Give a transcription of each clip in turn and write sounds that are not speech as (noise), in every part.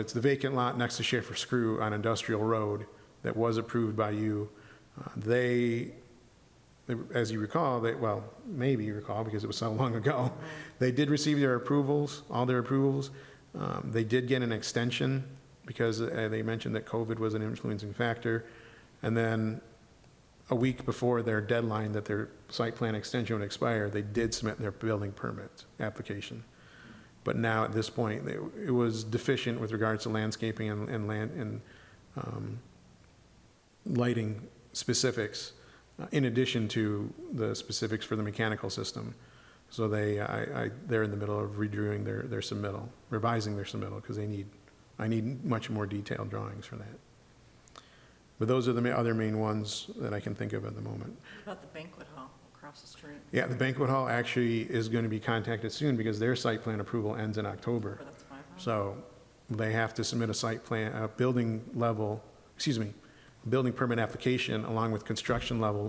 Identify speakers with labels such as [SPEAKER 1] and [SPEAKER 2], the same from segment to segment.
[SPEAKER 1] It's the vacant lot next to Schaefer Screw on Industrial Road that was approved by you. Uh, They, they- as you recall, they, well, maybe you recall because it was so (laughs) long ago, they did receive their approvals, all their approvals. Um, They did get an extension because uh, they mentioned that COVID was an influencing factor. And then a week before their deadline that their site plan extension would expire, they did submit their building permit application. But now, at this point, it it was deficient with regards to landscaping and and land, and um, lighting specifics, uh, in addition to the specifics for the mechanical system. So they, I, I, they're in the middle of redoing their, their submittal, revising their submittal, because they need, I need much more detailed drawings for that. But those are the ma- other main ones that I can think of at the moment.
[SPEAKER 2] About the banquet hall across the street,
[SPEAKER 1] Yeah, the banquet hall actually is going to be contacted soon, because their site plan approval ends in October.
[SPEAKER 2] where that's my house.
[SPEAKER 1] So they have to submit a site plan, a building level, excuse me, building permit application along with construction level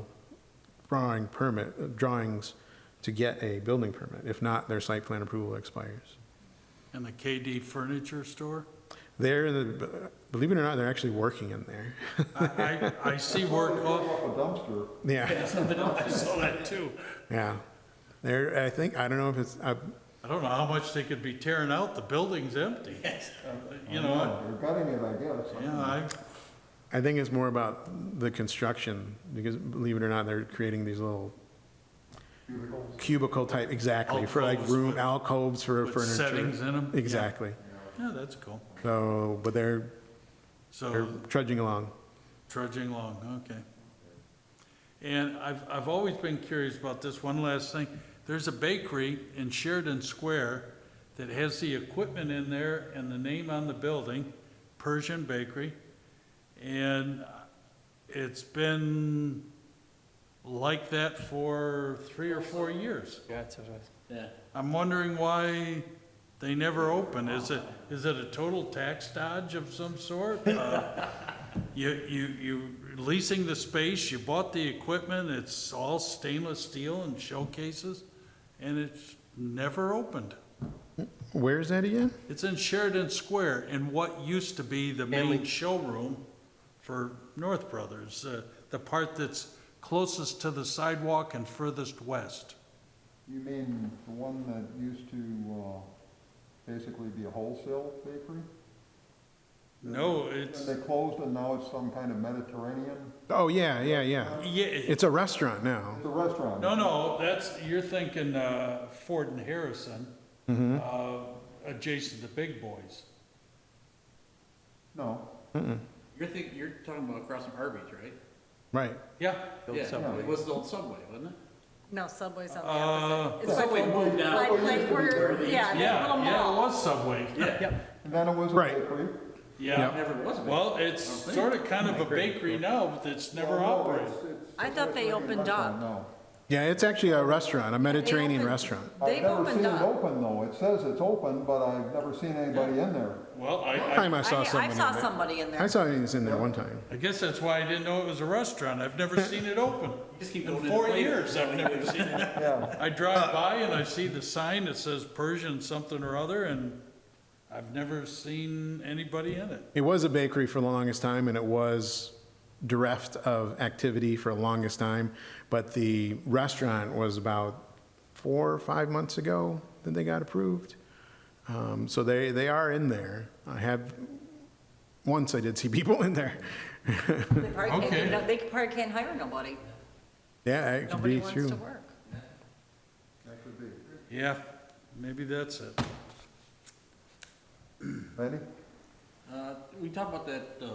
[SPEAKER 1] drawing permit, uh, drawings to get a building permit. If not, their site plan approval expires.
[SPEAKER 3] And the KD Furniture Store?
[SPEAKER 1] They're, in the- believe it or not, they're actually working in there. (laughs)
[SPEAKER 3] I, I, I see work off,
[SPEAKER 4] Up a dumpster.
[SPEAKER 1] Yeah,
[SPEAKER 3] (laughs) I saw that too.
[SPEAKER 1] yeah. They're, I think, I don't know if it's, I-
[SPEAKER 3] I don't know how much they could be tearing out, the building's empty. You know,
[SPEAKER 4] They're gutting it, I guess.
[SPEAKER 3] yeah, I,
[SPEAKER 1] I think it's more about the construction, because believe it or not, they're creating these little cubicle type, exactly, for like
[SPEAKER 3] Alcoves
[SPEAKER 1] room,
[SPEAKER 3] with-
[SPEAKER 1] alcoves for
[SPEAKER 3] with
[SPEAKER 1] furniture.
[SPEAKER 3] settings in 'em, yeah.
[SPEAKER 1] Exactly.
[SPEAKER 3] yeah, that's cool.
[SPEAKER 1] So, but they're, they're
[SPEAKER 3] So
[SPEAKER 1] trudging along.
[SPEAKER 3] trudging along, okay. And I've, I've always been curious about this, one last thing. There's a bakery in Sheridan Square that has the equipment in there and the name on the building, Persian Bakery. And it's been like that for three or four years. I'm wondering why they never open. Is it, is it a total tax dodge of some sort? Uh, You, you, you leasing the space, you bought the equipment, it's all stainless steel and showcases, and it's never opened.
[SPEAKER 1] Where is that again?
[SPEAKER 3] It's in Sheridan Square in what used to be the main showroom for North Brothers, uh, the part that's closest to the sidewalk and furthest west.
[SPEAKER 4] You mean the one that used to, uh, basically be a wholesale bakery?
[SPEAKER 3] No, it's,
[SPEAKER 4] And they closed and now it's some kind of Mediterranean?
[SPEAKER 1] Oh, yeah, yeah, yeah.
[SPEAKER 3] yeah,
[SPEAKER 1] It's a restaurant now.
[SPEAKER 4] It's a restaurant.
[SPEAKER 3] No, no, that's, you're thinking uh, Ford and Harrison, uh, adjacent to Big Boys.
[SPEAKER 4] No,
[SPEAKER 5] You're thinking, you're talking about across from Arby's, right?
[SPEAKER 1] Right.
[SPEAKER 3] Yeah,
[SPEAKER 5] Yeah, it was the old Subway, wasn't it?
[SPEAKER 2] No, Subway's on the
[SPEAKER 3] Uh,
[SPEAKER 2] opposite. It's like-
[SPEAKER 5] Subway moved
[SPEAKER 2] Like,
[SPEAKER 5] out.
[SPEAKER 2] like where, yeah, that
[SPEAKER 3] yeah,
[SPEAKER 2] little
[SPEAKER 3] yeah, it
[SPEAKER 2] mall.
[SPEAKER 3] was Subway.
[SPEAKER 5] Yeah,
[SPEAKER 4] and then it was a
[SPEAKER 1] Right.
[SPEAKER 4] bakery.
[SPEAKER 3] Yeah,
[SPEAKER 5] never was. a
[SPEAKER 3] well, it's sort of kind of a bakery now, but it's never
[SPEAKER 4] Well, Oh, no,
[SPEAKER 3] operated.
[SPEAKER 4] it's- it's
[SPEAKER 2] I
[SPEAKER 4] a
[SPEAKER 2] thought they
[SPEAKER 4] Mediterranean
[SPEAKER 2] opened
[SPEAKER 4] restaurant,
[SPEAKER 2] up.
[SPEAKER 4] No.
[SPEAKER 1] Yeah, it's actually a restaurant, a Mediterranean
[SPEAKER 2] opened-
[SPEAKER 1] restaurant.
[SPEAKER 4] I've
[SPEAKER 2] They've
[SPEAKER 4] never seen
[SPEAKER 2] opened
[SPEAKER 4] it
[SPEAKER 2] up.
[SPEAKER 4] open though. It says it's open, but I've never seen anybody in there.
[SPEAKER 3] Well, I, I,
[SPEAKER 1] Time I saw
[SPEAKER 2] I, I
[SPEAKER 1] someone in
[SPEAKER 2] saw
[SPEAKER 1] there.
[SPEAKER 2] somebody in
[SPEAKER 1] I
[SPEAKER 2] there.
[SPEAKER 1] saw things in there one time.
[SPEAKER 3] I guess that's why I didn't know it was a restaurant. I've never seen it open.
[SPEAKER 5] (laughs) Just keep
[SPEAKER 3] In
[SPEAKER 5] going in
[SPEAKER 3] four
[SPEAKER 5] the plate.
[SPEAKER 3] years, I've
[SPEAKER 5] (laughs)
[SPEAKER 3] never seen it.
[SPEAKER 4] Yeah,
[SPEAKER 3] I drive by and I see the sign that says Persian something or other, and I've never seen anybody in it.
[SPEAKER 1] It was a bakery for the longest time, and it was bereft of activity for the longest time. But the restaurant was about four or five months ago that they got approved. Um, so they, they are in there. I have, once I did see people in there. (laughs)
[SPEAKER 2] They probably
[SPEAKER 3] Okay.
[SPEAKER 2] can't, they probably can't hire nobody.
[SPEAKER 1] Yeah, it could
[SPEAKER 2] Nobody
[SPEAKER 1] be
[SPEAKER 2] wants to
[SPEAKER 1] true.
[SPEAKER 2] work.
[SPEAKER 4] that could be.
[SPEAKER 3] Yeah, maybe that's it.
[SPEAKER 4] Randy?
[SPEAKER 5] Uh, we talked about that, uh,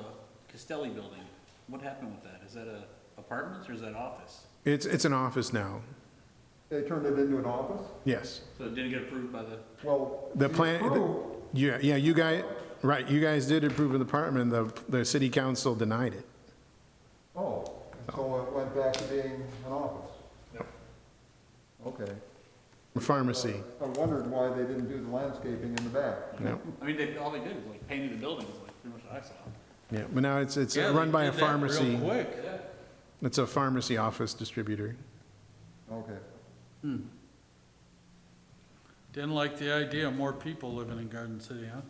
[SPEAKER 5] Castelli building. What happened with that? Is that a apartments or is that office?
[SPEAKER 1] It's, it's an office now,
[SPEAKER 4] They turned it into an office?
[SPEAKER 1] yes.
[SPEAKER 5] So it didn't get approved by the,
[SPEAKER 4] Well.
[SPEAKER 1] The
[SPEAKER 4] we
[SPEAKER 1] plan,
[SPEAKER 4] approved.
[SPEAKER 1] the- yeah, yeah, you guys, right, you guys did approve of the apartment, the, the city council denied it.
[SPEAKER 4] Oh, so it went back to being an office? Okay.
[SPEAKER 1] Pharmacy,
[SPEAKER 4] I wondered why they didn't do the landscaping in the back.
[SPEAKER 1] no,
[SPEAKER 5] I mean, they, all they did was like painted the building, was like pretty much what I saw.
[SPEAKER 1] yeah, but now it's, it's
[SPEAKER 3] Yeah,
[SPEAKER 1] run
[SPEAKER 3] they
[SPEAKER 1] by a
[SPEAKER 3] did that real
[SPEAKER 1] pharmacy.
[SPEAKER 3] quick.
[SPEAKER 1] It's a pharmacy office distributor.
[SPEAKER 4] Okay.
[SPEAKER 3] Didn't like the idea of more people living in Garden City, huh?